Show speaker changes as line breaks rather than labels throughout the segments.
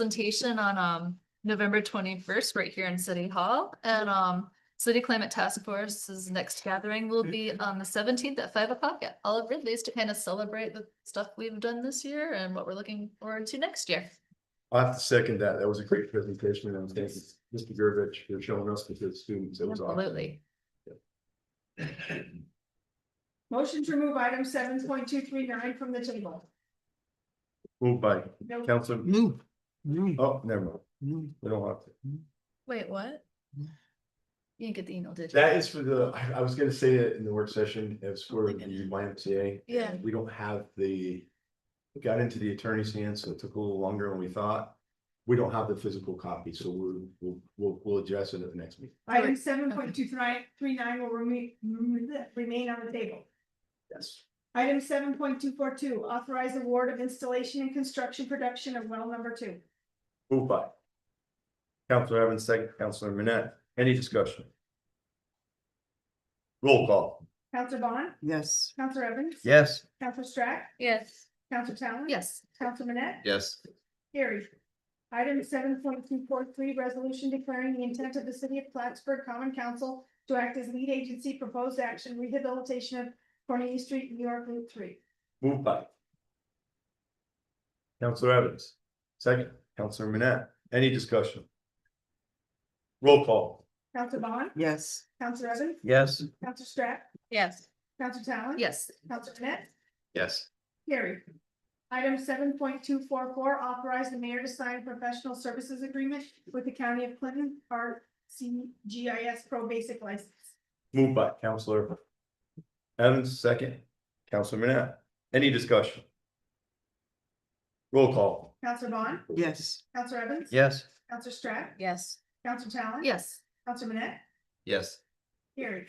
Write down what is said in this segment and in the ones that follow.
presentation on um November twenty-first, right here in City Hall. And um City Climate Task Force's next gathering will be
Mm-hmm.
on the seventeenth at five o'clock at Olive Ridley's to kind of celebrate the stuff we've done this year and what we're looking forward to next year.
I have to second that. That was a great presentation and thank you, Mr. Gurvich, for showing us the good students. It was awesome.
Absolutely.
Motion to remove item seven point two three nine from the table.
Moved by
No,
Counselor,
Move. Move.
oh, never mind.
Move.
We don't have to.
Wait, what? You didn't get the email, did Mm-hmm. you?
That is for the, I, I was gonna say it in the work session, as for the YMCA.
Yeah.
We don't have the, it got into the attorney's hands, so it took a little longer than we thought. We don't have the physical copy, so we'll, we'll, we'll, we'll address it at the next meeting.
Item seven point two three, three nine will remain, remain on the table.
Yes.
Item seven point two four two, authorize award of installation and construction production of well number two.
Moved by. Counselor Evans, second, Counselor Manette, any discussion? Roll call.
Counselor Bond,
Yes.
Counselor Evans.
Yes.
Counselor Strack,
Yes.
Counselor Talon.
Yes.
Counselor Manette.
Yes.
Carried. Item seven point two four three, resolution declaring the intent of the city of Plattsburgh Common Council to act as lead agency proposed action rehabilitation of Cornelia Street, New York Route Three.
Moved by. Counselor Evans, second, Counselor Manette, any discussion? Roll call.
Counselor Bond,
Yes.
Counselor Evans,
Yes.
Counselor Strack,
Yes.
Counselor Talon.
Yes.
Counselor Net,
Yes.
carried. Item seven point two four four, authorize the mayor to sign professional services agreement with the county of Clinton, our CGIS pro basic license.
Moved by Counselor Evans, second, Counselor Manette, any discussion? Roll call.
Counselor Bond,
Yes.
Counselor Evans.
Yes.
Counselor Strack,
Yes.
Counselor Talon.
Yes.
Counselor Net,
Yes.
Carried.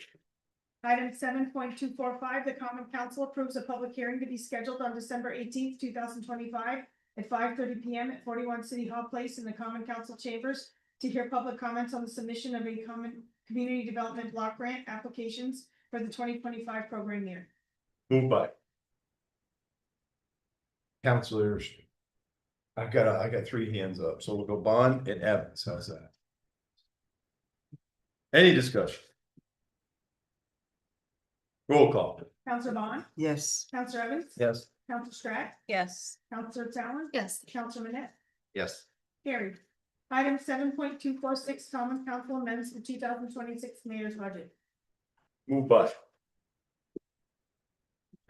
Item seven point two four five, the common council approves a public hearing to be scheduled on December eighteenth, two thousand twenty-five at five thirty P M at forty-one City Hall Place in the common council chambers to hear public comments on the submission of a common community development block grant applications for the twenty twenty-five program year.
Moved by. Counselor, I got, a- I got three hands up, so we'll go Bond and Evans, how's that? Any discussion? Roll call.
Counselor Bond,
Yes.
Counselor Evans,
Yes.
Counselor Strack,
Yes.
Counselor Talon,
Yes.
Counselor Manette.
Yes.
Carried. Item seven point two four six, common council amends the two thousand twenty-six mayor's budget.
Moved by.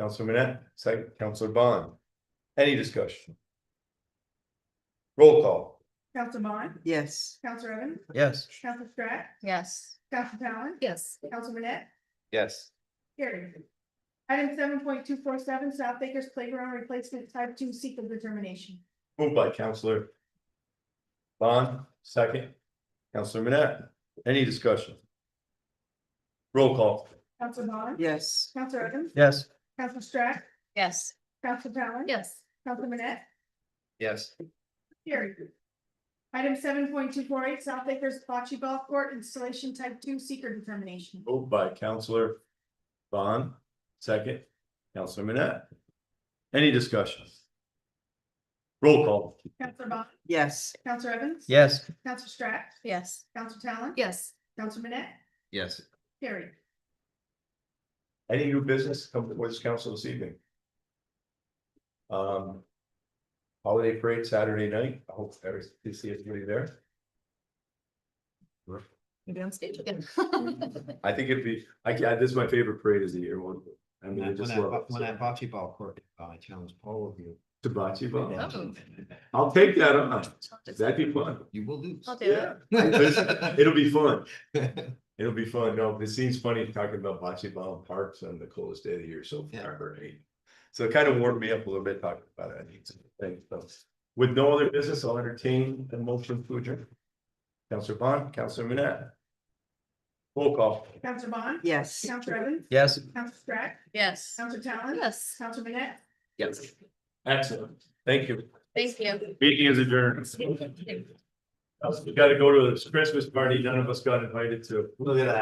Counselor Manette, second, Counselor Bond. Any discussion? Roll call.
Counselor Bond,
Yes.
Counselor Evans,
Yes.
Counselor Strack,
Yes.
Counselor Talon,
Yes.
Counselor Manette,
Yes.
carried. Item seven point two four seven, South Acres Playground Replacement Type Two Seeker Determination.
Moved by Counselor. Bond, second. Counselor Manette, any discussion? Roll call.
Counselor Bond,
Yes.
Counselor Evans,
Yes.
Counselor Strack,
Yes.
Counselor Talon,
Yes.
Counselor Manette,
Yes.
carried. Item seven point two four eight, South Acres Bocce Ball Court Installation Type Two Seeker Determination.
Moved by Counselor Bond, second. Counselor Manette. Any discussion? Roll call.
Counselor Bond,
Yes.
Counselor Evans.
Yes.
Counselor Strack,
Yes.
Counselor Talon.
Yes.
Counselor Manette,
Yes.
carried.
Any new business come before this council this evening? Um. Holiday parade Saturday night, I hope every, to see everybody there.
You're down stage again.
I think it'd be, I, yeah, this is my favorite parade of the year, one. I mean,
When
I
I-
just
when I
love.
bo- when I bocce ball court, I uh, challenge all of you.
Hibachi ball.
Oh.
I'll take that on, that'd be fun,
You will lose.
I'll do it.
yeah, it'll be fun, it'll be fun, no, it seems funny talking about bocce ball and parks on the coldest day of the year so
Yeah.
far, right? So it kind of warmed me up a little bit talking about it, I need some things, so. With no other business, I'll entertain a motion to adjourn. Counselor Bond, Counselor Manette. Roll call.
Counselor Bond.
Yes.
Counselor Evans,
Yes.
Counselor Strack,
Yes.
Counselor Talon.
Yes.
Counselor Manette,
Yes. Excellent, thank you.
Thank you.
Meeting is adjourned. We gotta go to this Christmas party none of us got invited to.
Look at that.